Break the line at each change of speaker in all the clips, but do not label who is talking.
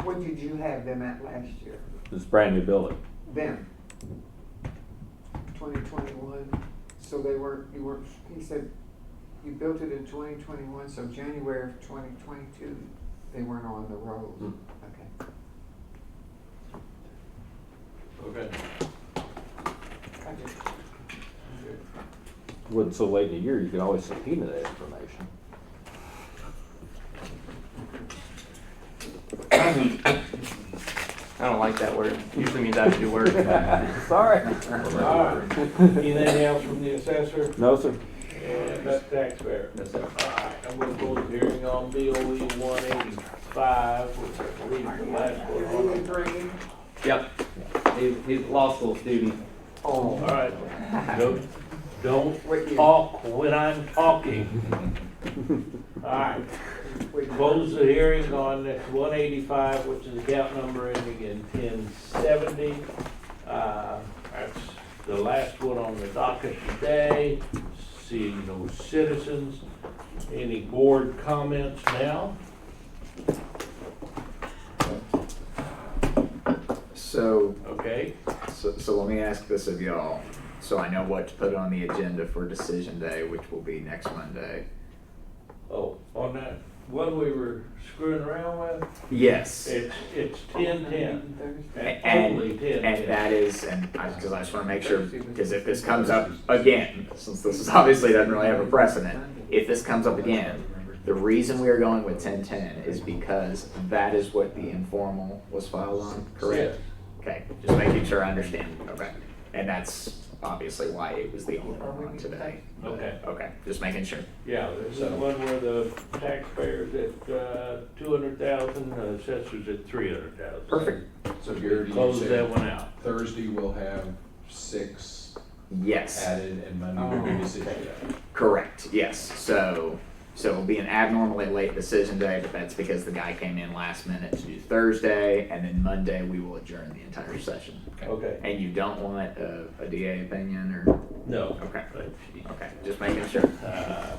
What did you have them at last year?
This brand new building.
Them? Twenty twenty-one, so they weren't, you weren't, he said, you built it in twenty twenty-one, so January of twenty twenty-two, they weren't on the road. Okay,
Okay.
I just, I'm good.
Wasn't so late in the year, you could always subpoena that information.
I don't like that word. Usually means I have to do work.
Sorry.
All right. Anything else from the assessor
No, sir.
and the taxpayer?
That's it.
All right, I'm gonna close the hearing on BOE one eighty-five, which I believe is the last one. on it.
Yep. He's, he's a law school student.
All
Oh,
right. Don't- Don't
what year?
talk when I'm talking. All right,
What year?
close the hearing on one eighty-five, which is account number ending in ten seventy. Uh, that's the last one on the docket today. Seeing no citizens. Any board comments now?
So,
Okay,
so, so let me ask this of y'all, so I know what to put on the agenda for decision day, which will be next Monday.
oh, on that one we were screwing around with,
Yes.
it's, it's ten ten.
A- and-
Only ten
And
ten.
that is, and I, cause I just wanna make sure, cause if this comes up again, since this is obviously doesn't really have a precedent, if this comes up again, the reason we are going with ten ten is because that is what the informal was filed on, correct? Okay, just making sure I understand, okay, and that's obviously why it was the only one on today.
Okay,
Okay, just making sure.
yeah, there's that one where the taxpayers at, uh, two hundred thousand, assessors at three hundred thousand.
Perfect.
So Gary, do you
Close that
say
one out.
Thursday we'll have six
Yes,
added and Monday will be decision day?
correct. Yes. So so it'll be an abnormally late decision day, but that's because the guy came in last minute to do Thursday, and then Monday we will adjourn the entire session.
Okay,
And you don't want a, a DA opinion or
no.
okay,
But,
okay, just making sure.
uh,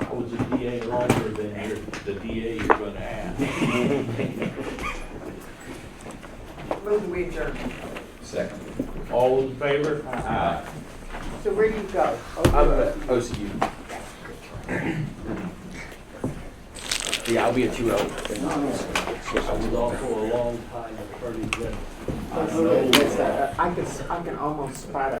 I was a DA longer than you're, the DA you're gonna have.
Move the wager.
Second.
All in favor?
Aye. So where do you go?
I'm at OCU. Yeah, I'll be at UO.
I was also a long time attorney general.
uh, I can, I can almost spot it.